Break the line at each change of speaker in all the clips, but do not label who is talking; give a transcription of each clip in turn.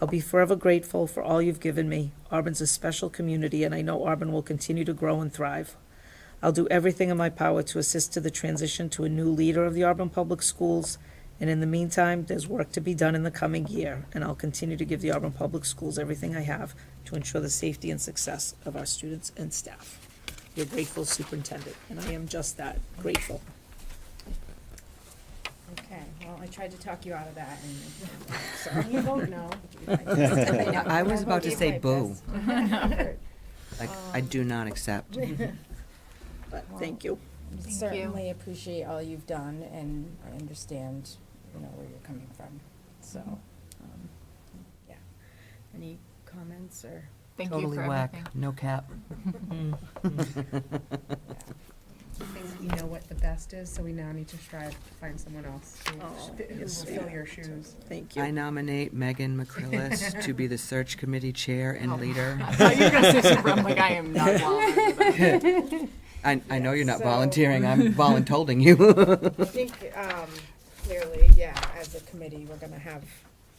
I'll be forever grateful for all you've given me. Auburn's a special community, and I know Auburn will continue to grow and thrive. I'll do everything in my power to assist to the transition to a new leader of the Auburn Public Schools, and in the meantime, there's work to be done in the coming year, and I'll continue to give the Auburn Public Schools everything I have to ensure the safety and success of our students and staff. Your grateful superintendent, and I am just that, grateful.
Okay, well, I tried to talk you out of that, and, so you vote no.
I was about to say boo.
boo.
Like, I do not accept.
But thank you.
Certainly appreciate all you've done, and I understand, you know, where you're coming from, so, um, yeah. Any comments or?
Thank you
Totally
for
whack,
everything.
no cap.
you know what the best is, so we now need to strive to find someone else who
Oh,
who will
yes,
fill
yeah.
your shoes.
Thank
I
you.
nominate Megan McCrillis to be the search committee chair
Oh.
and leader.
I thought you were gonna say something, I'm like, I am not qualified. for that.
I, I know you're not
So-
volunteering, I'm voluntolding you.
I think, um, clearly, yeah, as a committee, we're gonna have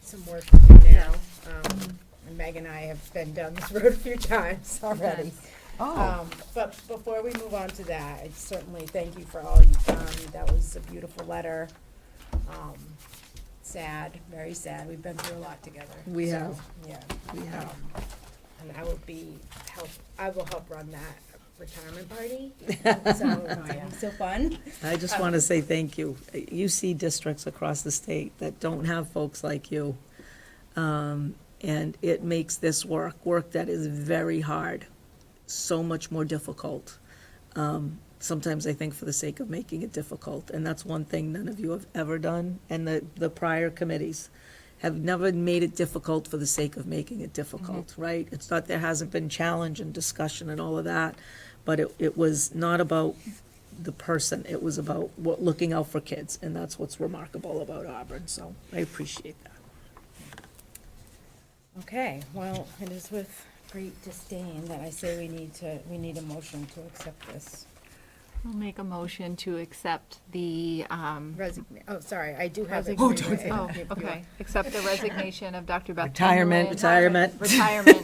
some work to do now. Um, and Meg and I have been down this road a few times already.
Oh.
Um, but before we move on to that, I certainly thank you for all you've done. That was a beautiful letter. Um, sad, very sad. We've been through a lot together.
We
so,
have.
Yeah.
We have.
Um, And I will be, help, I will help run that retirement party. So, it's gonna be so fun.
I just want to say thank you. You see districts across the state that don't have folks like you. Um, And it makes this work, work that is very hard, so much more difficult. Um, Sometimes I think for the sake of making it difficult, and that's one thing none of you have ever done, and the, the prior committees have never made it difficult for the sake of making it difficult, right? It's not, there hasn't been challenge and discussion and all of that, but it, it was not about the person. It was about what, looking out for kids, and that's what's remarkable about Auburn, so I appreciate that.
Okay, well, it is with great disdain that I say we need to, we need a motion to accept this.
I'll make a motion to accept the, um,
Resign, oh, sorry, I do have it.
Oh,
don't say
oh, okay, accept the resignation of Dr. Beth.
Retirement.
Retirement.
Chamberlain.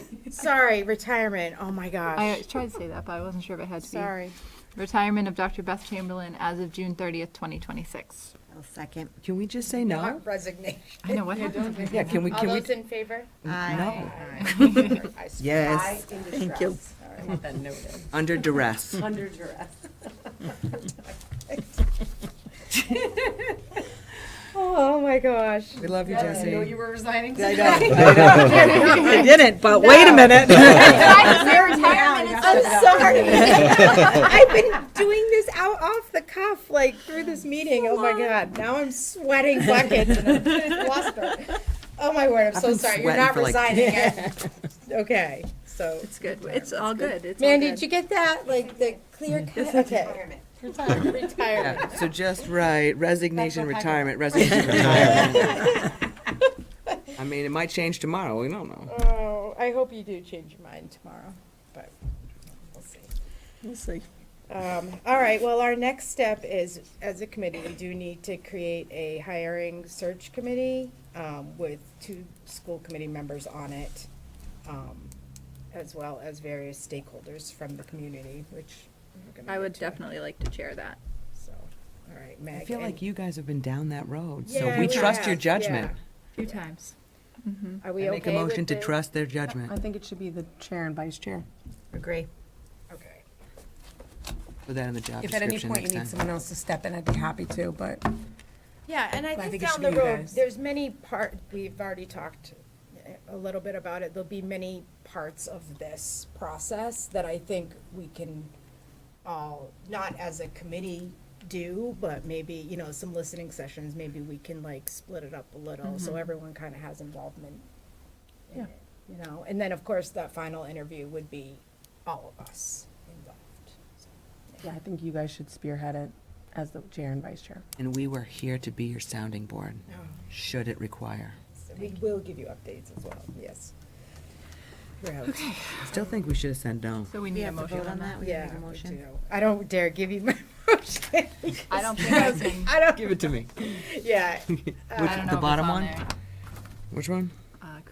Retirement.
Sorry, retirement, oh my
I
gosh,
tried to say that, but I wasn't sure if it had to be.
sorry.
Retirement of Dr. Beth Chamberlain as of June thirtieth, twenty twenty-six.
I'll second.
Can we just say no?
Resignation.
I know, what happened?
Yeah, can we,
All
can we? Mm,
those in favor?
No,
Yes.
Thank you.
under duress.
Under duress.
Oh my gosh.
We love you, Jesse.
were resigning.
I know.
I didn't, but wait a minute.
I'm sorry. I've been doing this out off the cuff, like through this meeting. Oh my god, now I'm sweating buckets and I'm flustered. Oh my word, I'm so
been
sorry. You're
sweating
not
for, like-
resigning it. Okay, so.
It's good, it's all good, it's all
Mandy,
good.
did you get that? Like the clear cut? Okay. Retirement.
Yeah, So just right, resignation, retirement, resignation, retirement. I mean, it might change tomorrow, we don't know.
Oh, I hope you do change your mind tomorrow, but we'll see.
We'll see.
Um, all right, well, our next step is, as a committee, we do need to create a hiring search committee, um, with two school committee members on it, um, as well as various stakeholders from the community, which we're gonna
I
get
would
to,
definitely like to chair that.
So, all right, Meg.
I feel
and-
like you guys have been down that road, so
Yeah,
we
we
trust your
have,
judgment.
Few times. Mm-hmm.
Are
I
we okay
make a motion
with
to
the-
trust their judgment.
I think it should be the chair and vice chair.
Agree.
Okay,
Put that in the job
If at any
description
point you need
next time.
someone else to step in, I'd be happy to, but
yeah, and I
But I
think
think it
down
should
the
be you
road,
guys.
there's many part, we've already talked eh, a little bit about it, there'll be many parts of this process that I think we can all, not as a committee do, but maybe, you know, some listening sessions, maybe we can like split it up a little, so everyone kind of has involvement. in it, You know, and then, of course, that final interview would be all of us involved. so.
yeah, I think you guys should spearhead it as the chair and vice chair.
And we were here to be your sounding board,
Oh.
should it require.
We will give you updates as well, yes. We're out.
I still think we should have said no.
So we need a motion on that?
Yeah, we do. I don't dare give you my motion.
I don't think I can,
I don't,
Give it to me.
yeah.
I don't know if it's
bottom one?
on there.
Which one?
Uh,